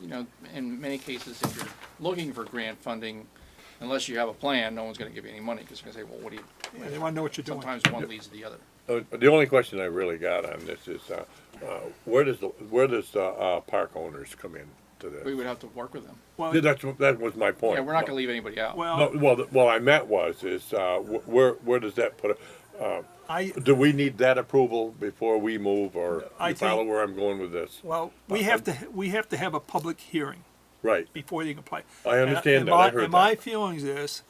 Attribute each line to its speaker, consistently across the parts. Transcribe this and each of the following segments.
Speaker 1: you know, in many cases, if you're looking for grant funding, unless you have a plan, no one's gonna give you any money, because they're gonna say, well, what do you,
Speaker 2: Yeah, They wanna know what you're doing.
Speaker 1: sometimes one leads to the other.
Speaker 3: Uh, The only question I really got on this is, uh, uh, where does the, where does the, uh, park owners come in to
Speaker 1: We
Speaker 3: this?
Speaker 1: would have to work with them.
Speaker 2: Well,
Speaker 3: Yeah, That's, that was my point.
Speaker 1: Yeah, we're not gonna leave anybody out.
Speaker 3: No,
Speaker 2: well,
Speaker 3: well, the- what I meant was, is, uh, wh- where, where does that put, a- uh,
Speaker 2: I,
Speaker 3: do we need that approval before we move, or
Speaker 2: I
Speaker 3: you follow
Speaker 2: think-
Speaker 3: where I'm going with this?
Speaker 2: well, we have to, we have to have a public hearing
Speaker 3: Right,
Speaker 2: before they can apply.
Speaker 3: I
Speaker 2: And- and
Speaker 3: understand that, I
Speaker 2: my-
Speaker 3: heard
Speaker 2: And my
Speaker 3: that.
Speaker 2: feelings is,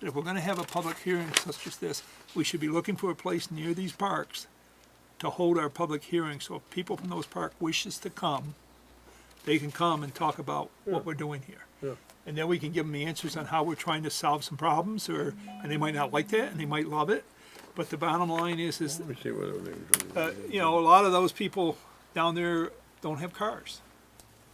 Speaker 2: that if we're gonna have a public hearing such as this, we should be looking for a place near these parks to hold our public hearing, so if people from those park wishes to come, they can come and talk about what we're doing here. And then we can give them the answers on how we're trying to solve some problems, or, and they might not like that, and they might love it, but the bottom line is, is
Speaker 3: let me see what everything's
Speaker 2: uh, you know, a lot of those people down there don't have cars.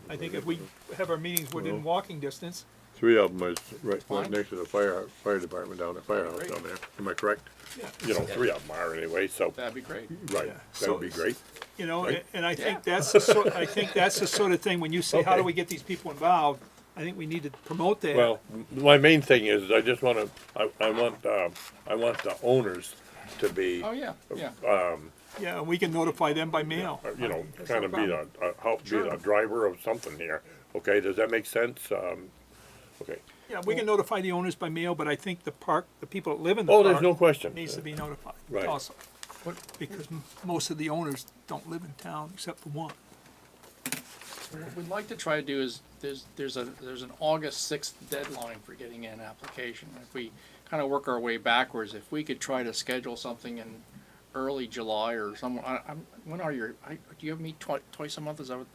Speaker 2: I think if we have our meetings within walking distance,
Speaker 3: Three of them is right,
Speaker 1: Fine.
Speaker 3: right next to the fire, fire department down, the firehouse
Speaker 1: Great.
Speaker 3: down there, am I correct?
Speaker 2: yeah,
Speaker 3: You know, three of them are anyway, so,
Speaker 1: That'd be great.
Speaker 3: right,
Speaker 2: Yeah.
Speaker 3: that
Speaker 2: So-
Speaker 3: would be great.
Speaker 2: you know,
Speaker 3: Right.
Speaker 2: and I think that's the sort, I think that's the sort of thing, when you say, how do
Speaker 3: Okay.
Speaker 2: we get these people involved? I think we need to promote that.
Speaker 3: Well, m- my main thing is, I just wanna, I, I want, um, I want the owners to be,
Speaker 1: Oh, yeah, yeah.
Speaker 2: Yeah, and we can notify them by mail.
Speaker 3: uh, you know,
Speaker 2: That's no
Speaker 3: kinda be the,
Speaker 2: problem.
Speaker 3: uh, help be the
Speaker 2: Sure.
Speaker 3: driver of something here, okay, does that make sense? Um, okay,
Speaker 2: Yeah, we can notify the owners by mail, but I think the park, the people that live in the
Speaker 3: oh, there's no
Speaker 2: park
Speaker 3: question,
Speaker 2: needs to be notified
Speaker 3: Right.
Speaker 2: also. Because m- most of the owners don't live in town except for one.
Speaker 1: What we'd like to try to do is, there's, there's a, there's an August sixth deadline for getting in application. If we kind of work our way backwards, if we could try to schedule something in early July or somewhere, I, I'm, when are your, I, do you have meet twi- twice a month, is that what?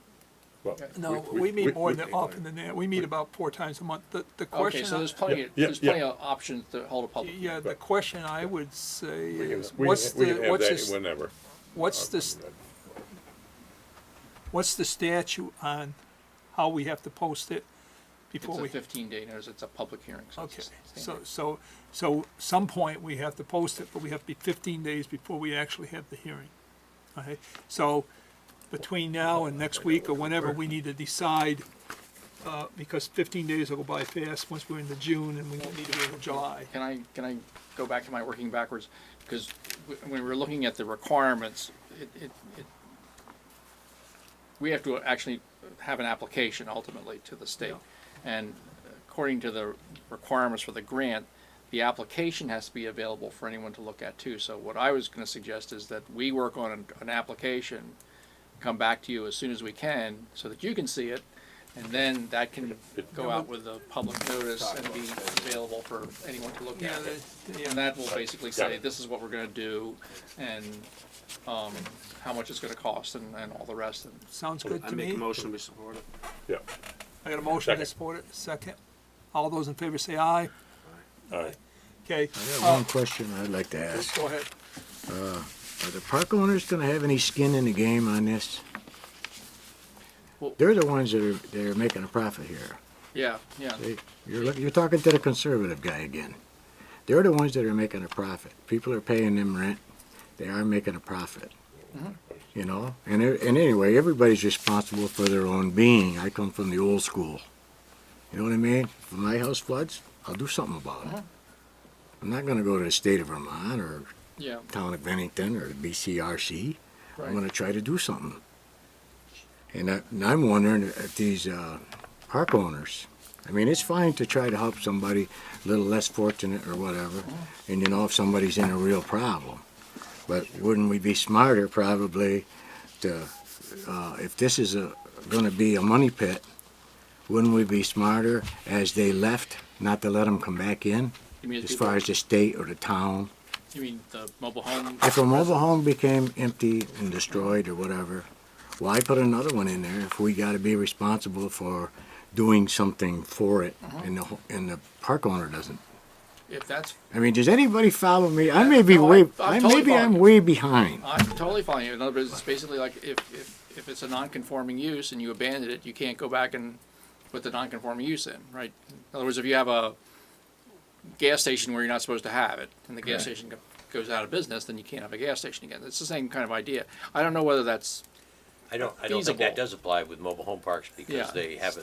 Speaker 3: well.
Speaker 2: No, we meet more than, often than that. We meet about four times a month. The, the
Speaker 1: Okay,
Speaker 2: question,
Speaker 1: so
Speaker 2: I-
Speaker 1: there's plenty, of
Speaker 3: Yeah,
Speaker 1: there's
Speaker 3: yeah,
Speaker 1: plenty of options to hold a public. hearing.
Speaker 2: yeah, the question I would say
Speaker 3: We can-
Speaker 2: is,
Speaker 3: we
Speaker 2: what's
Speaker 3: can- we
Speaker 2: the,
Speaker 3: can have
Speaker 2: what's
Speaker 3: that uh,
Speaker 2: this,
Speaker 3: Whenever.
Speaker 2: what's this, what's the statute on how we have to post it before
Speaker 1: It's a
Speaker 2: we?
Speaker 1: fifteen day notice, it's a public hearing. so it's
Speaker 2: Okay,
Speaker 1: the same
Speaker 2: so,
Speaker 1: day.
Speaker 2: so, so some point we have to post it, but we have to be fifteen days before we actually have the hearing. Okay, so between now and next week or whenever, we need to decide, uh, because fifteen days will go by fast once we're into June and we won't need to be in July.
Speaker 1: Can I, can I go back to my working backwards? Because when we were looking at the requirements, it, it, it, we have to actually have an application ultimately to the state. And according to the requirements for the grant, the application has to be available for anyone to look at too. So what I was gonna suggest is that we work on an, an application, come back to you as soon as we can, so that you can see it, and then that can go out with a public notice and be available for anyone to look at. it. And that will basically say, this is what we're gonna do, and, um, how much it's gonna cost and, and all the rest, and
Speaker 2: Sounds good
Speaker 4: I
Speaker 2: to
Speaker 4: make
Speaker 2: me.
Speaker 4: a motion, we support it.
Speaker 3: Yeah,
Speaker 2: I got a motion to
Speaker 3: Second.
Speaker 2: support it, second. All those in favor say aye.
Speaker 3: all right.
Speaker 2: Okay,
Speaker 5: I got
Speaker 2: uh,
Speaker 5: one question I'd like to ask.
Speaker 2: go ahead.
Speaker 5: Are the park owners gonna have any skin in the game on this?
Speaker 1: Well-
Speaker 5: They're the ones that are, that are making a profit here.
Speaker 1: yeah, yeah.
Speaker 5: They, you're, look- you're talking to the conservative guy again. They're the ones that are making a profit. People are paying them rent. They are making a profit. You know, and, e- and anyway, everybody's responsible for their own being. I come from the old school. You know what I mean? If my house floods, I'll do something about it. I'm not gonna go to the state of Vermont or
Speaker 1: Yeah,
Speaker 5: town of Bennington or BCRC.
Speaker 1: Right.
Speaker 5: I'm gonna try to do something. And, I, and I'm wondering if these uh, park owners, I mean, it's fine to try to help somebody a little less fortunate or whatever,
Speaker 1: Uh-huh.
Speaker 5: and you know if somebody's in a real problem. But wouldn't we be smarter probably to, uh, if this is a, gonna be a money pit, wouldn't we be smarter as they left, not to let them come back in?
Speaker 1: you mean, the
Speaker 5: As far
Speaker 1: people-
Speaker 5: as the state or the town?
Speaker 1: you mean the mobile home?
Speaker 5: If a mobile home became empty and destroyed or whatever, why put another one in there if we gotta be responsible for doing something for it
Speaker 1: Uh-huh.
Speaker 5: and the, ho- and the park owner doesn't?
Speaker 1: If that's,
Speaker 5: I mean, does anybody follow me? I may be
Speaker 1: No, I-
Speaker 5: way,
Speaker 1: I'm
Speaker 5: I,
Speaker 1: totally
Speaker 5: maybe I'm
Speaker 1: following.
Speaker 5: way behind.
Speaker 1: I'm totally fine, in other words, it's basically like, if, if, if it's a non-conforming use and you abandon it, you can't go back and put the non-conforming use in, right? In other words, if you have a gas station where you're not supposed to have it, and the gas station go- goes out of business, then you can't have a gas station again, it's the same kind of idea. I don't know whether that's
Speaker 6: I don't, I don't
Speaker 1: feasible.
Speaker 6: think that does apply with mobile home parks
Speaker 1: Yeah.
Speaker 6: because they have